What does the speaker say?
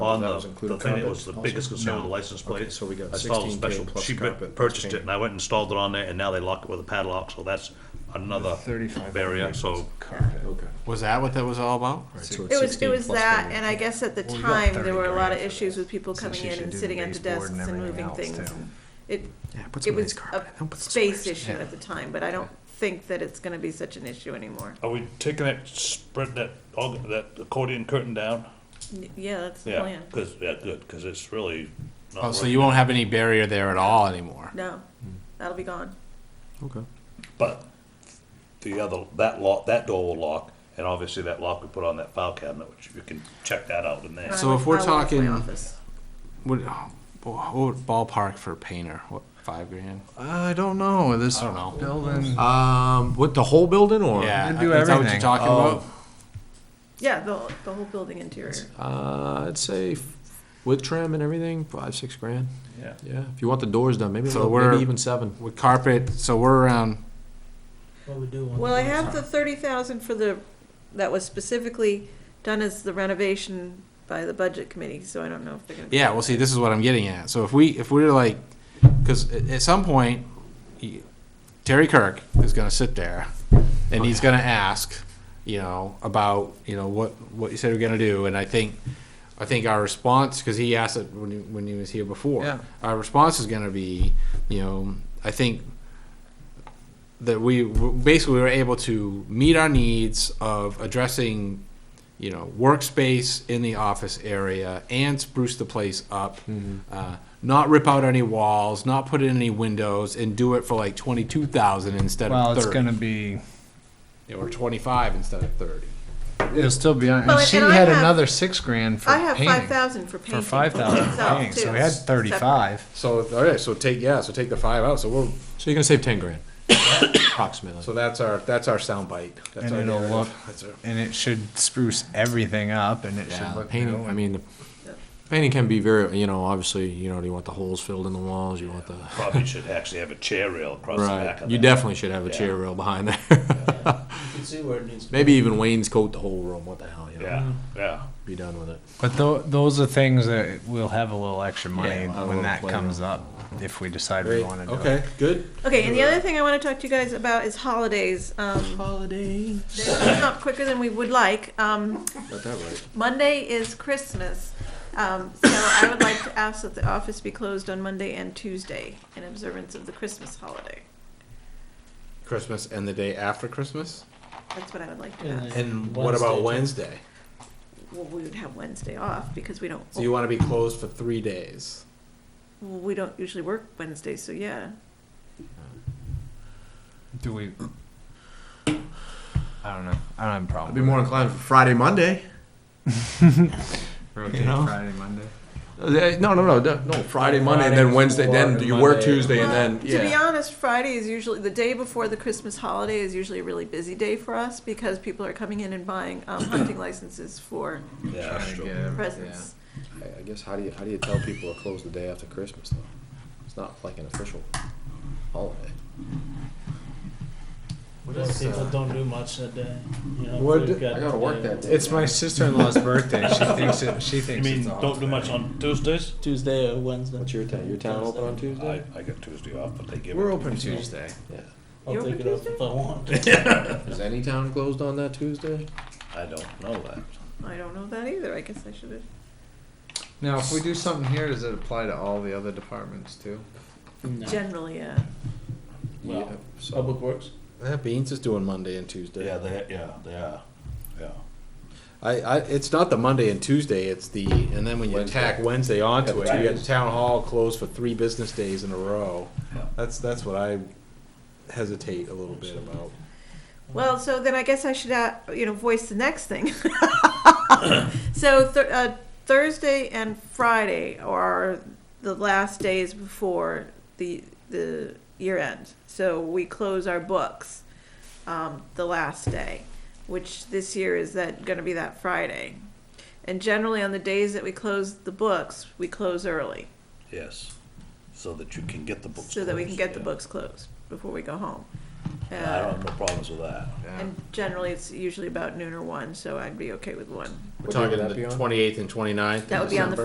on the, was the including thing that carpet was the also? biggest concern with the No. license Okay, plate. so we got I saw the 16K special- plus she bu- carpet plus Purchased it, paint. and I went and installed it on there, and now they lock it with a padlock, so that's another barrier, so. Okay. Was that what that was all about? Right, so it's It was, it 16 was plus that, carpet. and I guess at the Well, we got time, there 30 were a lot grand of for issues that, with people since coming you in should and do the sitting at the baseboard desks and and moving everything else, things. too. It, Yeah, put it some nice was a carpet. Don't put some space nice- issue yeah. at the time, but I don't think that it's gonna be such an issue anymore. Are we taking that, spread that, that accordion curtain down? Y- Oh, Yeah, that's the Yeah, plan. cause, yeah, good, cause it's really not Oh, so working. you won't have any barrier there at all anymore? No, that'll be gone. Okay. But the other, that lock, that door will lock, and obviously that lock we put on that file cabinet, which you can check that out in there. I So went- if we're I went to my talking- office. What, what would ballpark for painter? What, five grand? I don't know, this I don't know. building, Um, what, the whole building or? Yeah, do is that what you're everything. Oh. talking about? Yeah, the, the whole building interior. Uh, I'd say f- with trim and everything, five, six grand. Yeah. Yeah, if you want the doors done, maybe, a So little- we're- maybe even seven. With carpet, so we're around, Well, I have the thirty thousand for the, that was specifically done as the renovation by the budget committee, so I don't know if they're gonna. be- yeah, well, see, this is what I'm getting at. So if we, if we're like, because at at some point, he- Terry Kirk is gonna sit there and he's gonna ask, you know, about, you know, what, what you said we're gonna do. And I think, I think our response, because he asked it when he, when he was here before. Yeah. Our response is gonna be, you know, I think that we w- basically were able to meet our needs of addressing, you know, workspace in the office area and spruce the place up, Mm-hmm. uh, not rip out any walls, not put in any windows, and do it for like twenty two thousand instead well, of it's thirty, gonna be, Yeah, or twenty five instead of thirty. it'll still be, on- Well, and she and I had have- another six grand for I have five painting. thousand for painting. For five thousand for itself, painting, so too, we had separate. thirty-five. So all right, so take yeah, so take the five out. So we're So you're gonna save ten grand, approximately. so that's our that's our sound bite. That's And our it'll narrative. look, That's our, and it should spruce everything up, and it should Yeah, look. painting, new. I mean, the painting can be very, you know, obviously, you know, do you want the holes filled in the walls, you want the, Probably should actually have a chair rail across the back right, of that. you definitely should have a chair rail behind there. can see where it needs to be. Maybe even wainscot the whole room, what the hell, you know, Yeah, yeah. be done with it. But tho- those are things that we'll have a little extra money Yeah, a when little that play comes around. up, if we decide we great. wanna do it. Okay, good. Okay, and the other thing I want to talk to you guys about is holidays. Um, Holiday. they're coming up quicker than we would like. Um, Got that right. Monday is Christmas, um, so I would like to ask that the office be closed on Monday and Tuesday in observance of the Christmas holiday. Christmas and the day after Christmas. That's what I would like to And ask. And what about Wednesday, Wednesday? Well, we would have Wednesday off because we don't, So you want to be closed for three days. well, we don't usually work Wednesday, so yeah. Do we? I don't know. I don't have a problem. I'd be more inclined for Friday, Monday. Rotate you know? Friday, Monday. No, Uh, no, no, no. Friday, Monday, and then Wednesday. Then you work Tuesday, and then Well, To be yeah. honest, Friday is usually, the day before the Christmas holiday is usually a really busy day for us because people are coming in and buying um, hunting licenses for Yeah, that's true. presents. I I guess how do you how do you tell people to close the day after Christmas though? It's not like an official holiday. Because people uh, don't do much that day. You know, What- we've got I gotta work the- that day. It's my sister-in-law's birthday. She thinks it. She You thinks mean, it's a don't do holiday. much on Tuesdays? Tuesday or Wednesday. What's your town? Your town open on I, Tuesday? I get Tuesday off, but they give We're it. open Tuesday. Yeah. You're I'll take open it off Tuesday? if I want. Is any town closed on that Tuesday? I don't know that. I don't know that either. I guess I should have. Now, if we do something here, does it apply to all the other departments too? No. Generally, uh, yeah. Well, Yeah, so- Public Works. Yeah, Beans is doing Monday and Tuesday. Yeah, they, yeah, they are, yeah. I, I, it's not the Monday and Tuesday. It's the and then when you Wednesday. tack Wednesday onto it, you get Wednesday. town hall closed for three business days in a row. Yeah. That's that's what I hesitate a little bit about. Well, so then I guess I should, uh, you know, voice the next thing. so th- uh, Thursday and Friday are the last days before the the year end. So we close our books um, the last day, which this year is that going to be that Friday. And generally, on the days that we close the books, we close early Yes, so that you can get the books. so that we can closed, get the yeah. books closed before we go home. I don't Uh, have no problems with that. Yeah. And generally, it's usually about noon or one, so I'd be okay with We're one. What day talking would that be the on? twenty eighth and 29th. That of would be on December. the